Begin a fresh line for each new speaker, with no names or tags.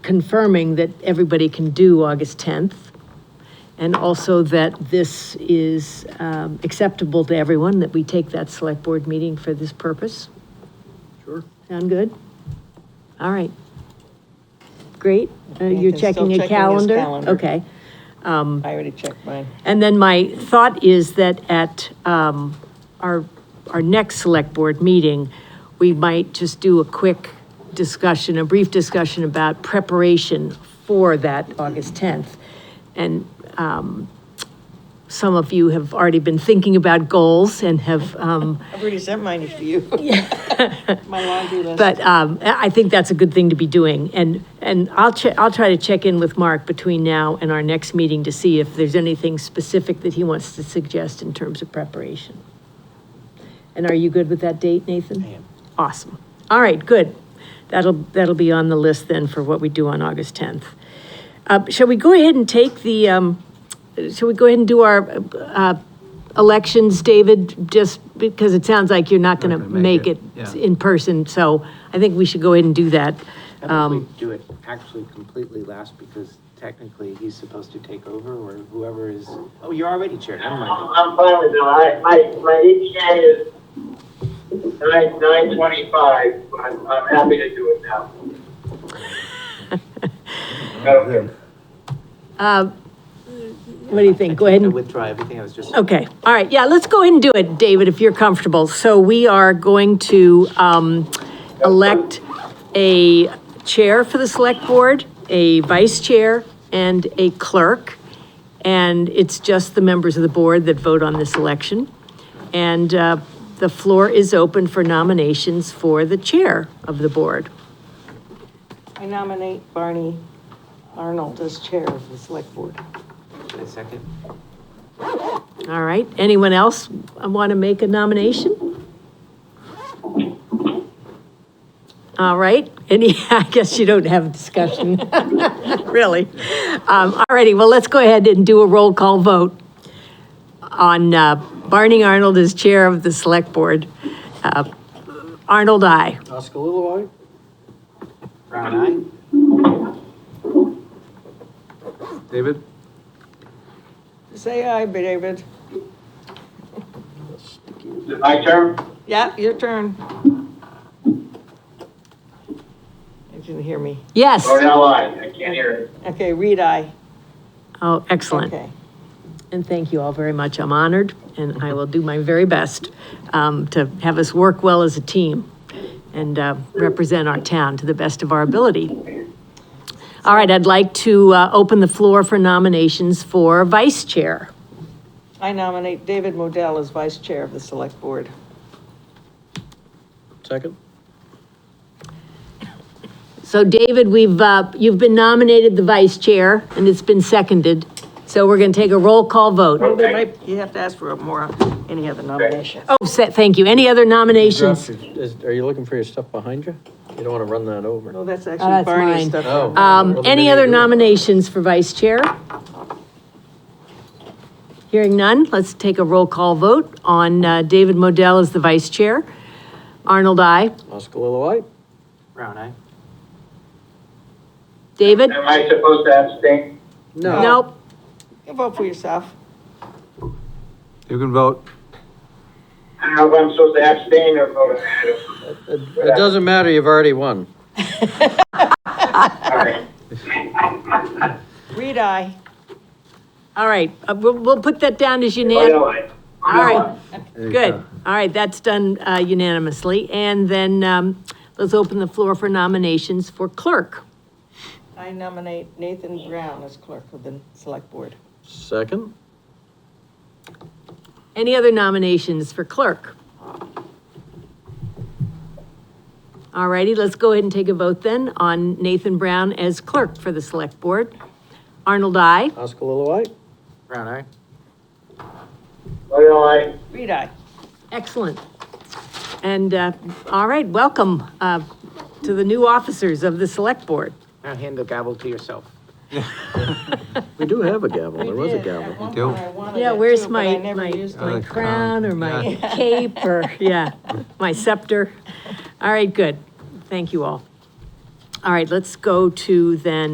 confirming that everybody can do August 10th, and also that this is um, acceptable to everyone, that we take that select board meeting for this purpose.
Sure.
Sound good? All right. Great. Uh,
Nathan's
You're
still
checking a
checking his
calendar?
calendar.
Okay.
I already checked mine.
And then my thought is that at um, our, our next select board meeting, we might just do a quick discussion, a brief discussion about preparation for that August 10th. And um, some of you have already been thinking about goals and have um,
I've already sent mine to you. My laundry list.
But um, I I think that's a good thing to be doing, and, and I'll che, I'll try to check in with Mark between now and our next meeting to see if there's anything specific that he wants to suggest in terms of preparation. And are you good with that date, Nathan? I am. Awesome. All right, good. That'll, that'll be on the list then for what we do on August 10th. Uh, Shall we go ahead and take the, um, shall we go ahead and do our uh, elections, David? Just because it sounds like you're not going to
gonna make
make
it,
it
yeah.
in person, so I think we should go ahead and do that.
How about we
Um,
do it actually completely last, because technically he's supposed to take over, or whoever is, oh, you're already chair, never mind.
I'm fine with that. I, my, my ETA is nine, nine twenty-five, but I'm, I'm happy to do it now. Okay.
What do you think? Go ahead
I
and Oh.
withdraw everything, I was just.
Okay, all right, yeah, let's go ahead and do it, David, if you're comfortable. So we are going to um, elect a chair for the select board, a vice chair, and a clerk. And it's just the members of the board that vote on this election. And uh, the floor is open for nominations for the chair of the board.
I nominate Barney Arnold as chair of the select board.
A second?
All right, anyone else want to make a nomination? All right, any, I guess you don't have a discussion, really. Um, All righty, well, let's go ahead and do a roll call vote on uh, Barney Arnold as chair of the select board. Uh, Arnold, aye.
Oskalilowai?
Brown
David?
Say aye, David.
Is it my turn?
Yeah, your turn. You didn't hear me.
Yes,
Or now I, I can't hear it.
Okay, read aye.
oh, excellent.
Okay.
And thank you all very much. I'm honored, and I will do my very best um, to have us work well as a team and uh, represent our town to the best of our ability. All right, I'd like to uh, open the floor for nominations for vice chair.
I nominate David Modell as vice chair of the select board.
Second?
So David, we've, uh, you've been nominated the vice chair, and it's been seconded. So we're going to take a roll call vote.
Well, there might, you have to ask for more, any other nominations.
Oh, se- thank you. Any other nominations?
Is- Are you looking for your stuff behind you? You don't want to run that over.
No, that's
Oh,
actually
that's
Barney's
mine.
stuff.
Oh.
Um, any other nominations for vice chair? Hearing none, let's take a roll call vote on uh, David Modell as the vice chair. Arnold, I.
Oskalilowai?
Brown eye.
David?
Am I supposed to abstain?
No.
Nope.
You Vote for yourself.
You can vote.
I don't know if I'm supposed to abstain or vote.
It it doesn't matter, you've already won.
All right.
Read aye.
All right, uh, we'll, we'll put that down as
Or
unanimous.
now I.
All right, good. All right, that's done uh, unanimously. And then um, let's open the floor for nominations for clerk.
I nominate Nathan Brown as clerk of the select board.
Second?
Any other nominations for clerk? All righty, let's go ahead and take a vote then on Nathan Brown as clerk for the select board. Arnold, I.
Oskalilowai?
Brown eye.
Or now I.
Read aye.
Excellent. And, uh, all right, welcome, uh, to the new officers of the select board.
Now hand the gavel to yourself.
We do have a gavel, there was a gavel.
do.
Oh,
Yeah, where's my, my, my
it.
crown or my cape or, yeah, my scepter? All right, good. Thank you all. All right, let's go to then